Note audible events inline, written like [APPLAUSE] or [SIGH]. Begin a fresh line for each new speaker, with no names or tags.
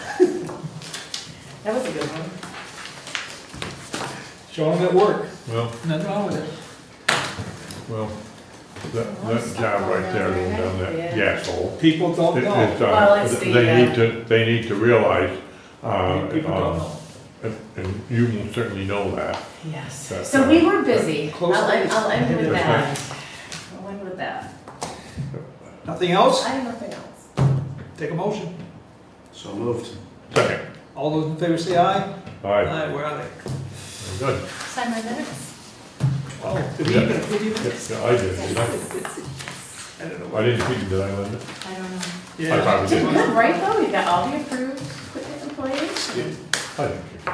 That was a good one.
Showing them at work,
Well,
nothing wrong with it.
well, that, that job right there, down that gas hole.
People
it-
don't know.
it's, uh,
Oh, Well, it's the,
They
uh,
need to, they need to realize, uh,
People don't
uh,
know.
and and you will certainly know that.
Yes.
That-
So uh, we were busy. I'll,
Close
end- I'll end with
to
that.
that. I'll end with that.
Nothing else?
I have nothing else.
Take a motion.
So moved.
Second,
All those in favor say aye.
aye,
Aye, where are they?
Very good.
Sign my minutes.
Oh, did we even, did we even?
Yeah, yeah, I did, did I?
I don't know.
I didn't think that I was,
I don't know.
I
Yeah.
probably
Did
[LAUGHS]
did.
good, right, though? We got all the approved equipment in place.
I didn't.